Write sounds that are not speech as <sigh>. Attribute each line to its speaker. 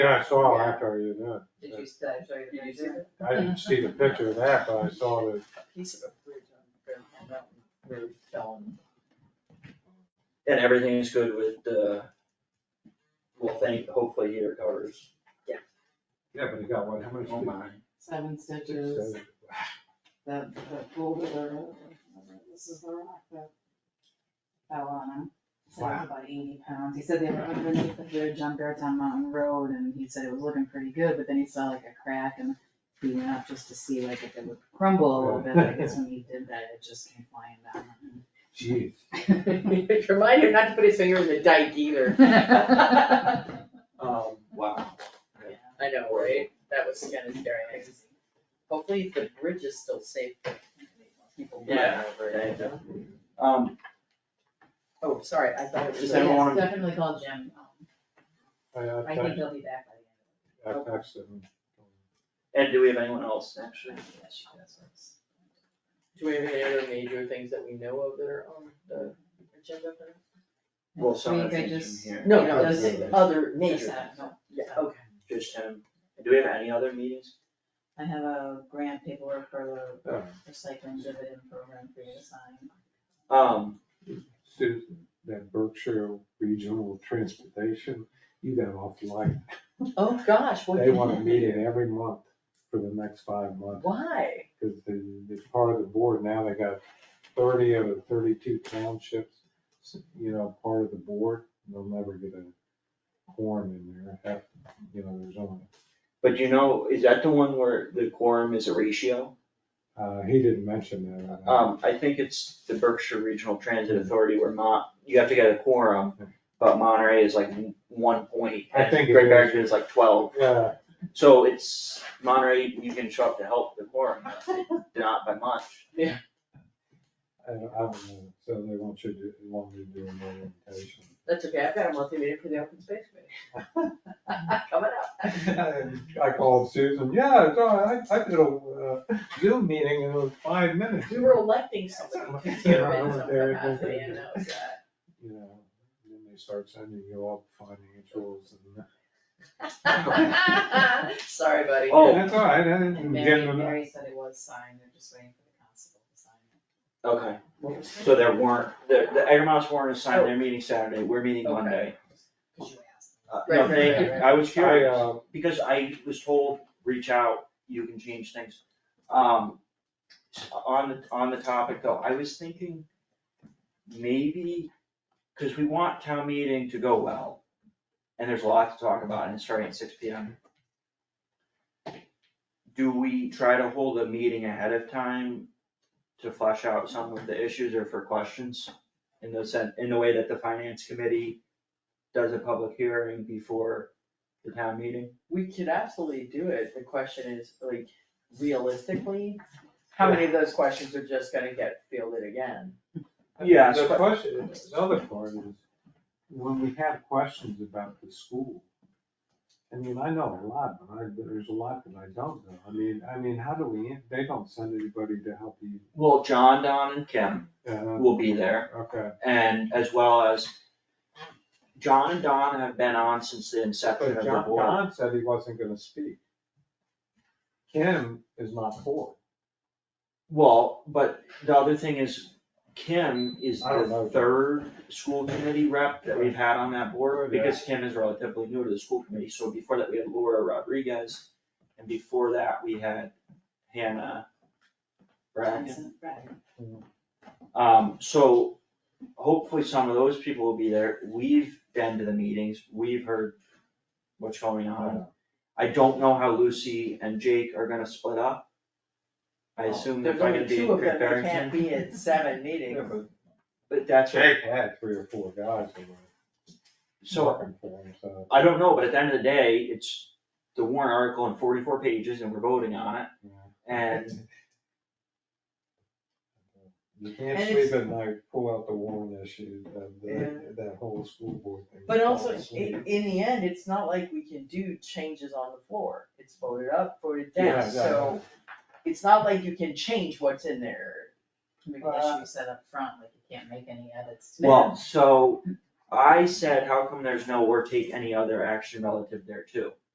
Speaker 1: Yeah, I saw it after you did. it.
Speaker 2: Did
Speaker 3: Did
Speaker 2: you, did I show you the
Speaker 3: you see
Speaker 2: picture?
Speaker 1: I didn't see the picture of that, but I saw that,
Speaker 3: a piece of a bridge on Grand Mountain Road fell and.
Speaker 4: And everything is good with the, well, thank, hopefully he recovers.
Speaker 1: yeah, but it got what, how much?
Speaker 4: Oh my,
Speaker 5: Seven stitches, that, that boulder, this is the rock that fell on him. Said it was about eighty pounds, he said they were underneath the bridge on Beartown Mountain Road, and he said it was looking pretty good, but then he saw like a crack and he went up just to see like if it would crumble a little bit, I guess when he did that, it just came flying down.
Speaker 1: Jeez.
Speaker 2: <laughs> Remind him not to put his finger in the dike
Speaker 5: <laughs>
Speaker 2: either. I
Speaker 4: um, wow.
Speaker 2: know, right? That was kind of scary. Hopefully the bridge is still safe for people
Speaker 4: Yeah.
Speaker 2: flying over it.
Speaker 4: Um,
Speaker 2: Oh, sorry, I thought it was.
Speaker 4: Does
Speaker 5: So yes,
Speaker 4: anyone wanna-
Speaker 5: Definitely call Jim, Um,
Speaker 1: I, I
Speaker 5: I think
Speaker 1: texted,
Speaker 5: he'll be back by
Speaker 1: I texted him.
Speaker 4: and do we have anyone else
Speaker 5: the
Speaker 4: actually?
Speaker 5: end of the week. Yeah, she does.
Speaker 2: Do we have any other major things that we know of that are on the agenda for now?
Speaker 4: Well, some of the
Speaker 5: Think I
Speaker 4: things
Speaker 5: just-
Speaker 4: in here.
Speaker 2: No,
Speaker 5: no,
Speaker 2: no,
Speaker 5: just-
Speaker 2: just other
Speaker 5: Just
Speaker 2: major.
Speaker 5: that, no.
Speaker 2: Yeah, okay.
Speaker 4: Just him. And Do we have any other meetings?
Speaker 5: I have a grant paperwork for
Speaker 1: Oh.
Speaker 5: the recycling dividend program for you to sign.
Speaker 4: Um,
Speaker 1: Susan, that Berkshire Regional Transportation, you got off the line.
Speaker 2: Oh, gosh, what?
Speaker 1: They want a meeting every month for the next five months.
Speaker 2: Why?
Speaker 1: Cause the, the part of the board now, they got thirty out of thirty-two townships, you know, part of the board, and they'll never get a quorum in there. Half, You know, there's only,
Speaker 4: but you know, is that the one where the quorum is a ratio?
Speaker 1: uh, he didn't mention that.
Speaker 4: Um, I think it's the Berkshire Regional Transit Authority where Mon, you have to get a quorum, but Monterey is like one point.
Speaker 1: I think it
Speaker 4: Great
Speaker 1: is.
Speaker 4: Barrington is like twelve.
Speaker 1: Yeah,
Speaker 4: So it's Monterey, you can show up to help the quorum, but it- <laughs> not by much.
Speaker 1: I don't, I don't know, so they want you to, want me to do an orientation.
Speaker 2: That's okay, I've got a monthly meeting for the open space committee. <laughs> Coming up.
Speaker 1: <laughs> I called Susan, yeah, it's all right. I, I did a uh, Zoom meeting in those five minutes.
Speaker 2: We were electing somebody to serve in some
Speaker 1: There it is.
Speaker 2: capacity and that was that.
Speaker 1: You know, and then they start sending you all financials <laughs> and.
Speaker 2: <laughs> Sorry, buddy.
Speaker 4: Oh.
Speaker 1: That's all right, I didn't
Speaker 5: And
Speaker 1: get
Speaker 5: Mary,
Speaker 1: them.
Speaker 5: Mary said it was signed, they're just waiting for the constable to sign it.
Speaker 4: Okay, so there weren't, the, the Egremont's warrant is signed, they're meeting Saturday, we're meeting
Speaker 2: Okay.
Speaker 4: Monday.
Speaker 5: Cause you asked. them.
Speaker 4: Uh,
Speaker 2: Right,
Speaker 4: No,
Speaker 2: right,
Speaker 4: thank you,
Speaker 2: right, right.
Speaker 4: I was
Speaker 1: I,
Speaker 4: curious,
Speaker 1: uh,
Speaker 4: because I was told, reach out, you can change things. Um, on the, on the topic though, I was thinking maybe, cause we want town meeting to go well. And there's a lot to talk about and it's starting at six P M. Do we try to hold a meeting ahead of time to flesh out some of the issues or for questions? In the sen in the way that the finance committee does a public hearing before the town meeting?
Speaker 2: We could absolutely do it, the question is, like, realistically, how many of those questions are just gonna get fielded again?
Speaker 4: Yeah,
Speaker 1: The
Speaker 4: but-
Speaker 1: question, the other part is, when we have questions about the school, I mean, I know a lot, but I, there's a lot that I don't know. I mean, I mean, how do we, they don't send anybody to help you.
Speaker 4: Well, John, Don and Kim
Speaker 1: uh,
Speaker 4: will be there
Speaker 1: Okay.
Speaker 4: and as well as John and Don have been on since the inception
Speaker 1: But
Speaker 4: of the
Speaker 1: John,
Speaker 4: board.
Speaker 1: Don said he wasn't gonna speak. Kim is not for
Speaker 4: Well, but the other thing is Kim is
Speaker 1: I don't know.
Speaker 4: the third school committee rep that we've had on that board
Speaker 1: Yeah.
Speaker 4: because Kim is relatively new to the school committee. So before that, we had Laura Rodriguez and before that, we had Hannah Bracken.
Speaker 5: Johnson, Right.
Speaker 4: Um, so hopefully some of those people will be there. We've been to the meetings, we've heard what's going on. I don't know how Lucy and Jake are gonna split up. I
Speaker 2: Oh,
Speaker 4: assume they're
Speaker 2: There's
Speaker 4: gonna
Speaker 2: only
Speaker 4: be
Speaker 2: two
Speaker 4: in
Speaker 2: of them,
Speaker 4: Great
Speaker 2: they can't
Speaker 4: Barrington,
Speaker 2: be at seven meetings.
Speaker 1: it.
Speaker 4: but that's,
Speaker 1: Jake had three or four guys that were
Speaker 4: so
Speaker 1: working for him, so.
Speaker 4: I don't know, but at the end of the day, it's the warrant article in forty-four pages and we're voting on it.
Speaker 1: yeah.
Speaker 4: And
Speaker 1: You can't
Speaker 2: And
Speaker 1: sleep at night, pull out the Warren issue, that, that, that whole school board thing.
Speaker 2: But
Speaker 4: Oh,
Speaker 2: also,
Speaker 1: Falls asleep.
Speaker 2: in, in the end, it's not like we can do changes on the floor, it's voted up, voted
Speaker 1: Yeah,
Speaker 2: down,
Speaker 1: yeah.
Speaker 2: so it's not like you can change what's in there.
Speaker 5: Maybe
Speaker 2: Uh,
Speaker 5: that should be set up front, like you can't make any edits to it.
Speaker 4: Well, so I said, how come there's no or take any other action relative there too?